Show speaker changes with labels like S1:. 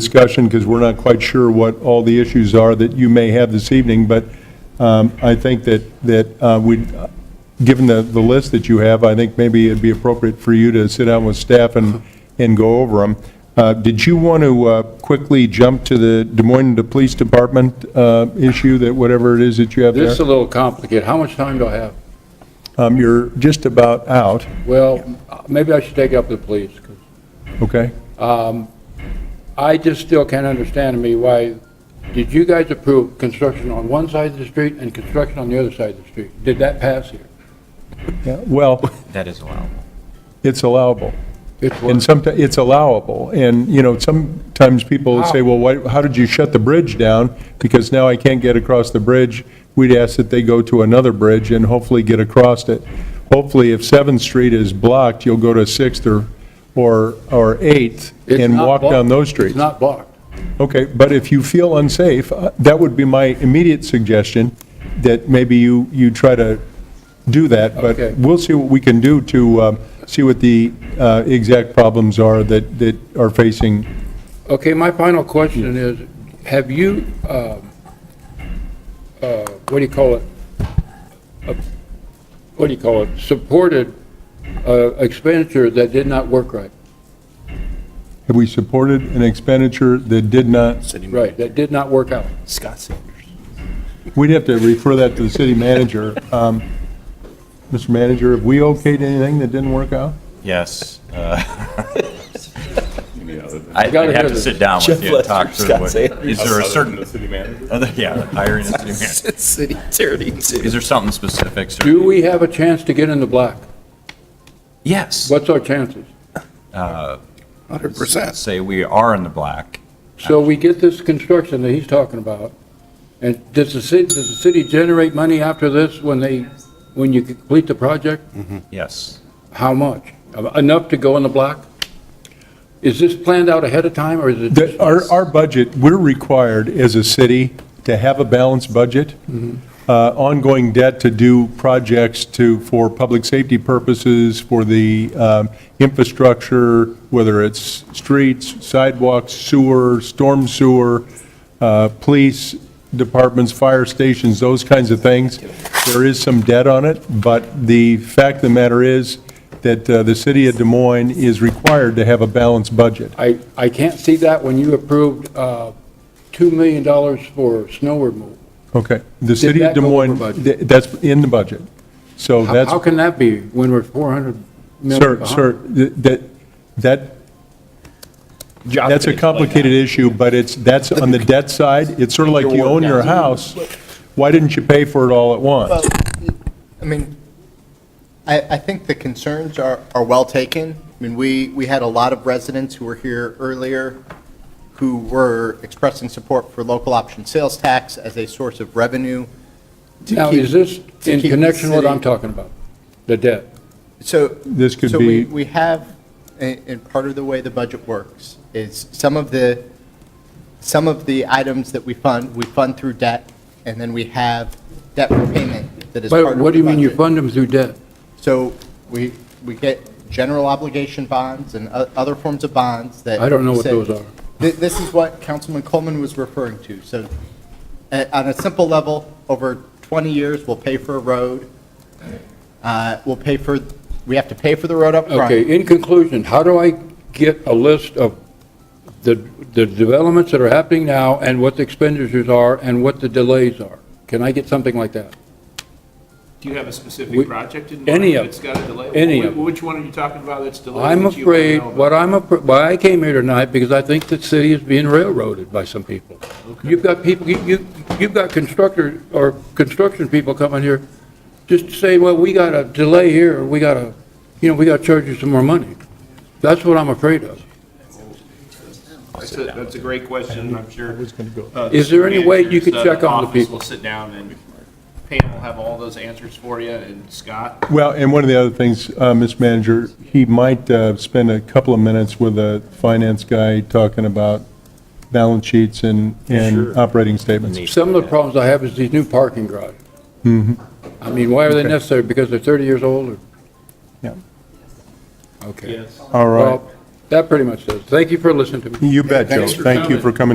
S1: discussion, because we're not quite sure what all the issues are that you may have this evening, but um, I think that, that uh, we, given the, the list that you have, I think maybe it'd be appropriate for you to sit down with staff and, and go over them. Uh, Did you want to uh, quickly jump to the Des Moines Police Department uh, issue, that whatever it is that you have
S2: This
S1: there?
S2: is a little complicated. How much time do I have?
S1: Um, You're just about out,
S2: Well, maybe I should take up the police, 'cause
S1: okay?
S2: I just still can't understand to me why, did you guys approve construction on one side of the street and construction on the other side of the street? Did that pass here?
S1: Yeah, Well,
S3: That is allowable.
S1: it's allowable.
S2: It's what-
S1: And sometimes, it's allowable, and, you know, sometimes people say, well, why, how did you shut the bridge down? Because now I can't get across the bridge, we'd ask that they go to another bridge and hopefully get across it. Hopefully, if Seventh Street is blocked, you'll go to Sixth or, or, or Eighth
S2: It's
S1: and
S2: not
S1: walk
S2: blocked.
S1: down those streets.
S2: It's not blocked.
S1: Okay, but if you feel unsafe, uh, that would be my immediate suggestion, that maybe you, you try to do that,
S2: Okay.
S1: but we'll see what we can do to um, see what the uh, exact problems are that, that are facing.
S2: Okay, my final question is, have you, um, uh, what do you call it? Uh, What do you call it? Supported uh, expenditure that did not work right?
S1: Have we supported an expenditure that did not,
S2: Right, that did not work out.
S4: Scott Sanders.
S1: we'd have to refer that to the city manager. Um, Mr. Manager, have we okayed anything that didn't work out?
S3: Yes.
S2: I gotta hear
S3: I'd have to
S2: this.
S3: sit down with
S4: Jeff
S3: you and talk
S4: Lester,
S3: through
S4: Scott
S3: what,
S4: Sanders.
S3: is there a certain,
S5: The city manager?
S3: other- yeah, the hiring of the city manager.
S4: City attorney, too.
S3: Is there something specific? sir?
S2: Do we have a chance to get in the black?
S3: Yes.
S2: What's our chances?
S4: Hundred percent.
S3: Say we are in the black.
S2: So we get this construction that he's talking about, and does the city, does the city generate money after this when they, when you complete the project?
S3: Yes.
S2: How much? Enough to go in the black? Is this planned out ahead of time, or is it?
S1: that our, our budget, we're required as a city to have a balanced budget, Uh, ongoing debt to do projects to, for public safety purposes, for the um, infrastructure, whether it's streets, sidewalks, sewer, storm sewer, uh, police departments, fire stations, those kinds of things. There is some debt on it, but the fact of the matter is that uh, the city of Des Moines is required to have a balanced budget.
S2: I, I can't see that when you approved uh, $2 million for snow removal.
S1: Okay, the city of
S2: that
S1: Des
S2: go over
S1: Moines,
S2: budget?
S1: th- that's in the budget. So
S2: How
S1: that's,
S2: how can that be when we're 400 million
S1: sir,
S2: behind?
S1: sir, th- that, that, that's a complicated issue, but it's, that's on the debt side. It's sort of like you own your house, why didn't you pay for it all at once?
S6: I mean, I, I think the concerns are, are well taken. I mean, we, we had a lot of residents who were here earlier who were expressing support for local option sales tax as a source of revenue. to
S2: Now,
S6: keep-
S2: is this
S6: to
S2: in
S6: keep the
S2: connection with what I'm
S6: city-
S2: talking about? The debt?
S6: So.
S1: This could
S6: So we,
S1: be-
S6: we have, and, and part of the way the budget works is some of the, some of the items that we fund, we fund through debt, and then we have debt repayment that is part
S2: But
S6: of the budget.
S2: what do you mean you fund them through debt?
S6: So we, we get general obligation bonds and o- other forms of bonds that.
S2: I don't know what
S6: say-
S2: those are.
S6: Thi- This is what Councilman Coleman was referring to. So uh, on a simple level, over 20 years, we'll pay for a road. Uh, We'll pay for, we have to pay for the road up front.
S2: Okay, in conclusion, how do I get a list of the, the developments that are happening now and what the expenditures are and what the delays are? Can I get something like that?
S5: Do you have a
S2: We-
S5: specific project in mind?
S2: any of
S5: That's got a delay?
S2: any
S5: Wh-
S2: of them.
S5: Which one are you talking about that's delayed?
S2: I'm
S5: that you wanna
S2: afraid,
S5: know about?
S2: what I'm, afr- why I came here tonight, because I think the city is being railroaded by some people. You've got people, you- you, you've got constructor, or construction people coming here just to say, well, we got a delay here, or we got to, you know, we got to charge you some more money. That's what I'm afraid of.
S5: That's a, that's a great question, I'm sure. uh, the
S2: Is there any way you could
S5: manager's, uh,
S2: check on the
S5: office
S2: people?
S5: will sit down and Pam will have all those answers for you, and Scott,
S1: Well, and one of the other things, uh, Mr. Manager, he might uh, spend a couple of minutes with a finance guy talking about balance sheets and, and operating statements.
S2: Some of the problems I have is these new parking garages.
S1: Mm-hmm.
S2: I mean, why are they necessary? Because they're 30 years old or?
S1: Yeah.
S2: Okay.
S5: yes.
S1: All right.
S2: Well,
S7: That pretty much does. Thank you for listening to me.
S1: You bet, Joe.
S2: Thanks for
S1: Thank you for coming